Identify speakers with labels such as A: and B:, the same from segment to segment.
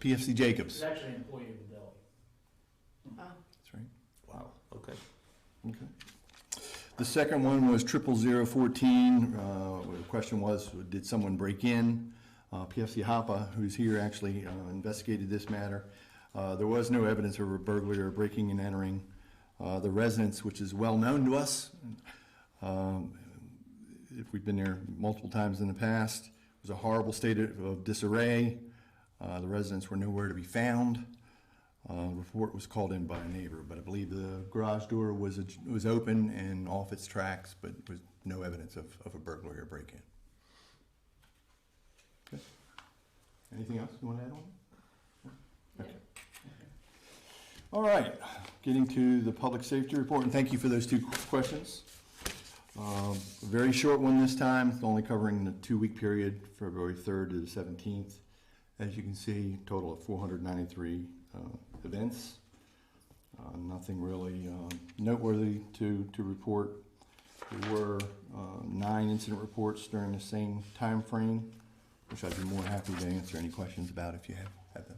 A: PFC Jacobs.
B: He's actually an employee of the deli.
A: That's right.
C: Wow, okay.
A: Okay. The second one was triple zero fourteen. Uh, the question was, did someone break in? Uh, PFC Hapa, who's here, actually uh, investigated this matter. Uh, there was no evidence of a burglary or breaking and entering. Uh, the residence, which is well known to us, um, if we've been there multiple times in the past, was a horrible state of of disarray. Uh, the residents were nowhere to be found. Uh, report was called in by a neighbor, but I believe the garage door was, a- was open and off its tracks, but was no evidence of, of a burglary or break-in. Okay. Anything else you want to add on? Okay. All right, getting to the public safety report, and thank you for those two questions. Um, a Very short one this time, it's only covering the two-week period, February 3rd to the 17th. As you can see, total of 493 uh, events. Uh, Nothing really um, noteworthy to, to report. There were uh, nine incident reports during the same time frame, which I'd be more happy to answer any questions about if you have, have them.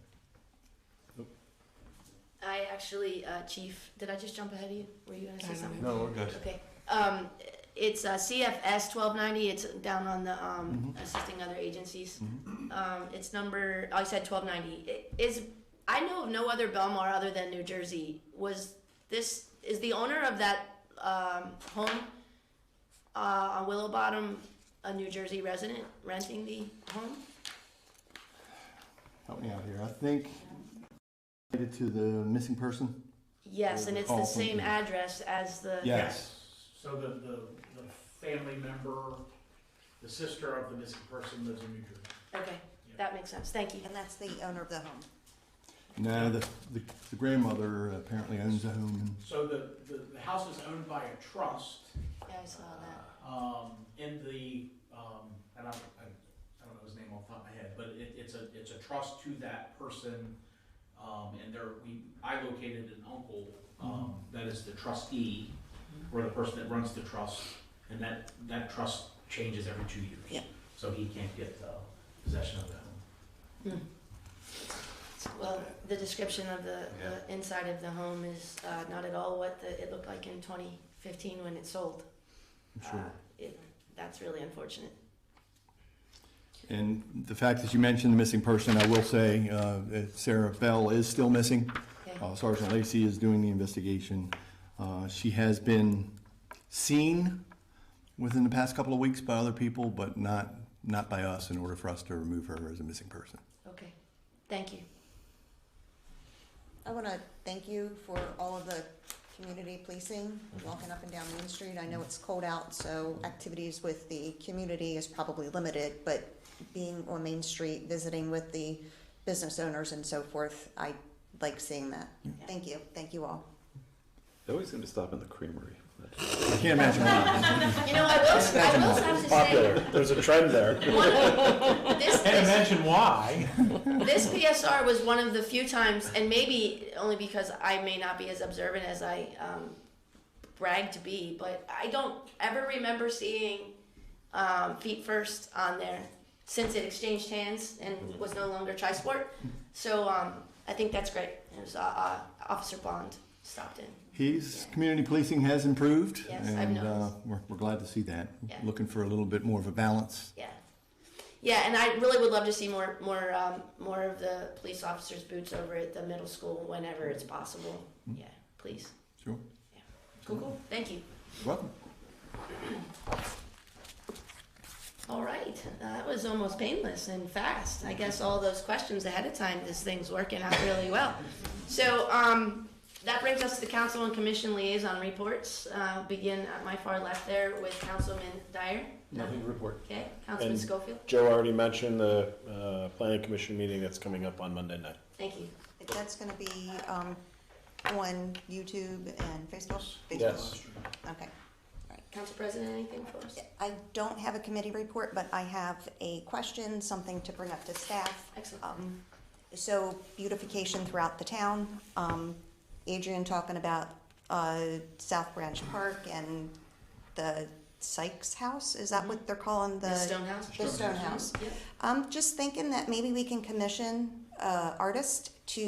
D: I actually, uh, Chief, did I just jump ahead of you? Were you gonna say something?
C: No, we're good.
D: Okay, um, it's, uh, CFS twelve ninety, it's down on the, um,
C: Mm-hmm.
D: assisting other agencies. Um, it's number, oh, I said twelve ninety, is, I know of no other Belmar other than New Jersey, was this, is the owner of that, um, home, uh, on Willow Bottom, a New Jersey resident renting the home?
A: Help me out here, I think, related to the missing person?
D: Yes, and it's the
A: Oh,
D: same
A: okay.
D: address as the.
A: Yes.
B: So the, the, the family member, the sister of the missing person lives in New Jersey.
D: Okay, that makes sense, thank you.
E: And that's the owner of the home.
A: No, the, the the grandmother apparently owns a home in
B: So the, the, the house is owned by a trust.
D: Yeah, I saw that.
B: Um, in the, um, and I, I, I don't know his name off the top of my head, but it, it's a, it's a trust to that person. Um, and there, we, I located an uncle, um, that is the trustee, or the person that runs the trust, and that, that trust changes every two years.
E: Yeah.
B: So he can't get, uh, possession of that.
D: Well, the description of the,
C: Yeah.
D: the inside of the home is uh, not at all what the, it looked like in 2015 when it sold.
A: I'm sure.
D: Uh, it, that's really unfortunate.
A: And the fact that you mentioned the missing person, I will say, uh, that Sarah Bell is still missing.
D: Okay.
C: Oh.
A: Uh, Sergeant Lacy is doing the investigation. Uh, She has been seen within the past couple of weeks by other people, but not, not by us in order for us to remove her as a missing person.
D: Okay, thank you.
E: I want to thank you for all of the community policing, walking up and down Main Street. I know it's cold out, so activities with the community is probably limited, but being on Main Street, visiting with the business owners and so forth, I like seeing that. Thank you, thank you all.
C: They always seem to stop in the creamery.
A: I can't imagine why.
D: You know, I will, I will have to say,
C: There's a trend there.
D: one of, this, this,
B: why.
D: this PSR was one of the few times, and maybe only because I may not be as observant as I um, brag to be, but I don't ever remember seeing um, feet first on there since it exchanged hands and was no longer tri sport. So um, I think that's great. It was uh, uh, Officer Bond stopped in.
A: He's, community policing has improved.
D: Yes, I've
A: And uh,
D: noticed.
A: we're, we're glad to see that.
D: Yeah.
A: Looking for a little bit more of a balance.
D: Yeah, yeah, and I really would love to see more, more, um, more of the police officers' boots over at the middle school whenever it's possible. Yeah, please.
A: Sure.
D: Cool, cool. Thank you.
A: Welcome.
D: All right, that was almost painless and fast. I guess all those questions ahead of time, this thing's working out really well. So um, that brings us to council and commission liaison reports. Uh, begin at my far left there with Councilman Dyer.
C: Nothing to report.
D: Okay, Councilman
F: And-
D: Schofield.
F: Joe already mentioned the uh, planning commission meeting that's coming up on Monday night.
D: Thank you.
E: That's going to be um, on YouTube and Facebook?
F: Yes.
E: Facebook. Okay.
D: Council President, anything for us?
E: I don't have a committee report, but I have a question, something to bring up to staff.
D: Excellent.
E: Um, So beautification throughout the town. Um, Adrian talking about uh, South Branch Park and the Sykes House, is that what they're calling the? Um,
D: Ms. Stonehouse?
E: The Stonehouse.
D: Yep.
E: I'm just thinking that maybe we can commission uh, artist to